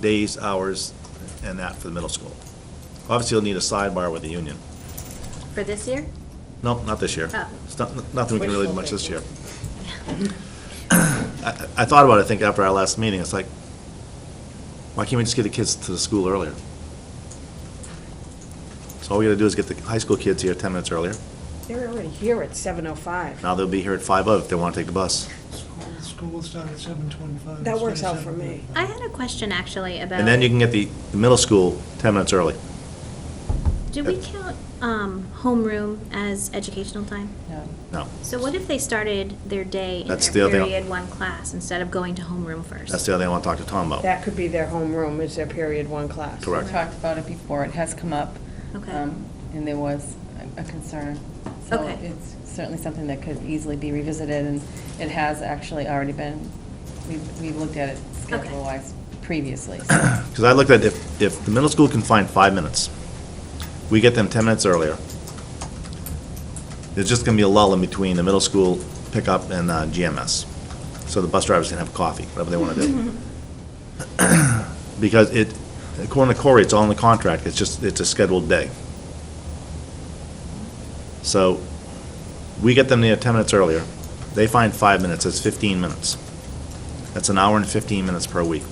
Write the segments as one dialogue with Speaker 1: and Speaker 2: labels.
Speaker 1: days, hours, and that for the middle school. Obviously, you'll need a sidebar with the union.
Speaker 2: For this year?
Speaker 1: No, not this year.
Speaker 2: Oh.
Speaker 1: It's not- Nothing we can really do much this year.
Speaker 2: Yeah.
Speaker 1: I, I thought about it, I think, after our last meeting, it's like, why can't we just get the kids to the school earlier? So all we gotta do is get the high school kids here ten minutes earlier.
Speaker 3: They're already here at 7:05.
Speaker 1: Now they'll be here at five oh if they wanna take the bus.
Speaker 4: School- School will start at seven twenty-five.
Speaker 3: That works out for me.
Speaker 2: I had a question actually about.
Speaker 1: And then you can get the, the middle school ten minutes early.
Speaker 2: Do we count um, homeroom as educational time?
Speaker 1: No,
Speaker 2: So what if they started their day in
Speaker 1: That's the
Speaker 2: their
Speaker 1: other thing.
Speaker 2: period one class instead of going to homeroom first?
Speaker 1: that's the other thing I wanna talk to Tom about.
Speaker 3: That could be their homeroom, is their period one class.
Speaker 1: Oh. Correct.
Speaker 5: We talked about it before, it has come up.
Speaker 2: Okay.
Speaker 5: um, And there was a a concern. So
Speaker 2: Okay.
Speaker 5: It's certainly something that could easily be revisited, and it has actually already been, we've we've looked at it
Speaker 2: Okay.
Speaker 5: schedule-wise previously. so-
Speaker 1: Because I looked at, if, if the middle school can find five minutes, we get them ten minutes earlier. There's just gonna be a lull in between the middle school pickup and uh, GMS. So the bus drivers can have coffee, whatever they wanna do. Because it, according to Corey, it's all in the contract, it's just, it's a scheduled day. So, we get them there ten minutes earlier, they find five minutes, that's fifteen minutes. That's an hour and fifteen minutes per week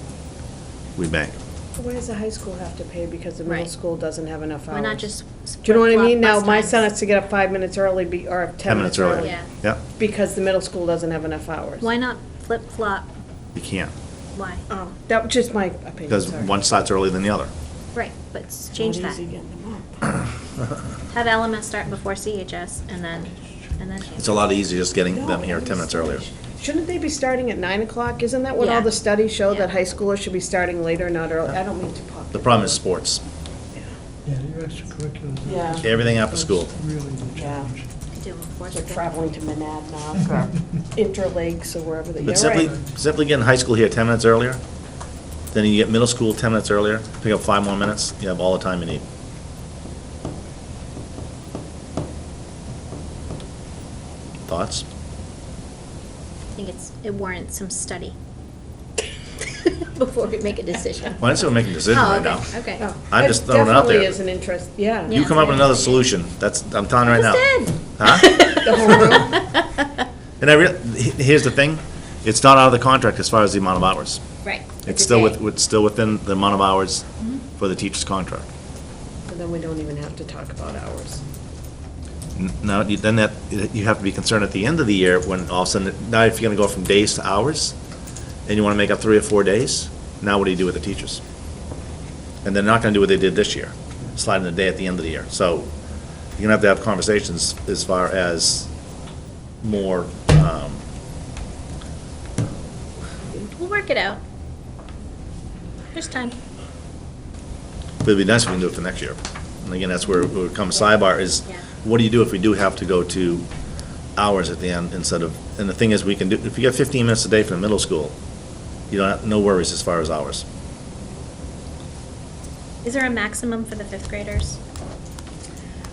Speaker 1: we bank.
Speaker 3: Why does the high school have to pay because the middle
Speaker 2: Right.
Speaker 3: school doesn't have enough hours?
Speaker 2: Why not just?
Speaker 3: Do you know what I mean? Now,
Speaker 2: flip-flop bus
Speaker 3: my son
Speaker 2: times?
Speaker 3: has to get up five minutes early, be- or 10 minutes early.
Speaker 2: Yeah.
Speaker 1: Yeah,
Speaker 3: Because the middle school doesn't have enough hours.
Speaker 2: Why not flip flop?
Speaker 1: you can't,
Speaker 2: Why?
Speaker 3: Oh, that was just my opinion,
Speaker 1: because
Speaker 3: sorry.
Speaker 1: one starts earlier than the other.
Speaker 2: Right, but s- change that. Have LMS start before CHS and then, and then.
Speaker 1: It's a lot easier just getting them here
Speaker 3: No,
Speaker 1: ten minutes earlier.
Speaker 3: Shouldn't they be starting at 9 o'clock? Isn't that what all
Speaker 2: Yeah.
Speaker 3: the studies show,
Speaker 2: Yeah.
Speaker 3: that high schoolers should be starting later, not early? I don't mean to pop.
Speaker 1: The problem is sports.
Speaker 4: Yeah, your extracurriculars. are
Speaker 3: Yeah.
Speaker 4: just-
Speaker 1: Everything after
Speaker 4: that's
Speaker 1: school.
Speaker 4: Really the
Speaker 3: Yeah.
Speaker 4: challenge.
Speaker 2: I do,
Speaker 3: They're
Speaker 2: unfortunately.
Speaker 3: traveling to Monadnock or Interlakes or wherever they, you're
Speaker 1: But simply,
Speaker 3: right.
Speaker 1: simply getting high school here ten minutes earlier, then you get middle school ten minutes earlier, pick up five more minutes, you have all the time you need. Thoughts?
Speaker 2: I think it's, it warrants some study before we make a decision.
Speaker 1: Well, I didn't say we're making a decision
Speaker 2: Oh,
Speaker 1: right
Speaker 2: okay,
Speaker 1: now.
Speaker 2: Okay.
Speaker 3: Oh,
Speaker 1: I'm
Speaker 3: that
Speaker 1: just throwing it out there.
Speaker 3: Definitely is an interest, yeah.
Speaker 1: You
Speaker 2: Yeah.
Speaker 1: come up with another solution, that's, I'm telling you right now.
Speaker 2: Just did.
Speaker 1: Huh?
Speaker 3: The homeroom.
Speaker 1: And I real, he- here's the thing, it's not out of the contract as far as the amount of hours.
Speaker 2: Right.
Speaker 1: It's
Speaker 2: a
Speaker 1: still with,
Speaker 2: day.
Speaker 1: it's still within the amount of hours for the teacher's contract.
Speaker 3: So Then we don't even have to talk about hours.
Speaker 1: N- Now, you- then that, you have to be concerned at the end of the year when all of a sudden, now if you're gonna go from days to hours, and you wanna make up three or four days, now what do you do with the teachers? And they're not gonna do what they did this year, sliding the day at the end of the year. So you're gonna have to have conversations as far as more, um,
Speaker 2: We'll work it out. There's time.
Speaker 1: It'd be nice if we can do it for next year. And again, that's where where it comes sidebar is,
Speaker 2: Yeah.
Speaker 1: what do you do if we do have to go to hours at the end instead of, and the thing is, we can do, if you get fifteen minutes a day from middle school, you don't, have- no worries as far as hours.
Speaker 2: Is there a maximum for the fifth graders?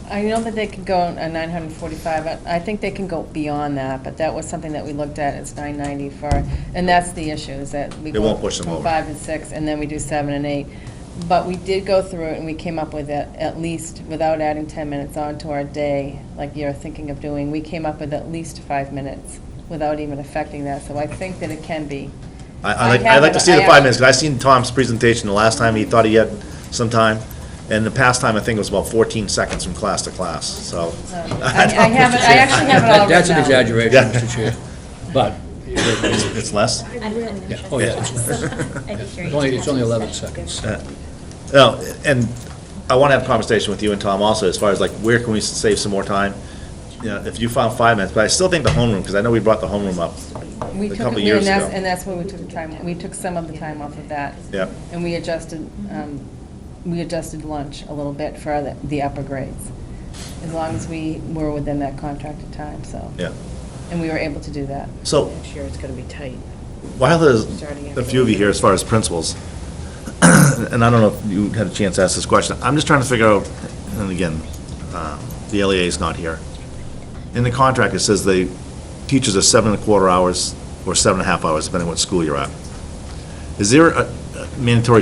Speaker 5: I know that they can go a 945, I- I think they can go beyond that, but that was something that we looked at, it's 990 for, and that's the issue, is that we
Speaker 1: They
Speaker 5: go.
Speaker 1: won't push them
Speaker 5: from
Speaker 1: over.
Speaker 5: five and six, and then we do seven and eight. But we did go through it, and we came up with at, at least, without adding 10 minutes onto our day, like you're thinking of doing, we came up with at least five minutes without even affecting that, so I think that it can be.
Speaker 1: I, I like, I
Speaker 5: have
Speaker 1: like to
Speaker 5: it-
Speaker 1: see the
Speaker 5: I
Speaker 1: five
Speaker 5: have-
Speaker 1: minutes, because I seen Tom's presentation the last time, he thought he had some time. And the past time, I think, was about fourteen seconds from class to class, so.
Speaker 5: I I have it, I actually have it all
Speaker 6: That- That's an
Speaker 5: written out.
Speaker 6: exaggeration, Mr. Chair, but
Speaker 1: It's it's less?
Speaker 2: I didn't
Speaker 6: Yeah. Oh, yeah. it's only, it's only 11 seconds.
Speaker 1: No, and I want to have a conversation with you and Tom also, as far as like, where can we save some more time? You know, if you found five minutes, but I still think the homeroom, because I know we brought the homeroom up.
Speaker 5: We
Speaker 1: a
Speaker 5: took,
Speaker 1: couple
Speaker 5: it-
Speaker 1: years
Speaker 5: and that's,
Speaker 1: ago.
Speaker 5: and that's when we took the time, we took some of the time off of that.
Speaker 1: Yep.
Speaker 5: And we adjusted, um, we adjusted lunch a little bit for the, the upper grades, as long as we were within that contracted time, so.
Speaker 1: Yeah.
Speaker 5: And we were able to do that.
Speaker 1: So
Speaker 3: Next year it's gonna be tight.
Speaker 1: while there's a few of you here as far as principals, and I don't know if you had a chance to ask this question, I'm just trying to figure out, and again, uh, the LEA is not here. In the contract, it says the teachers are seven and a quarter hours or seven and a half hours, depending what school you're at. Is there a a mandatory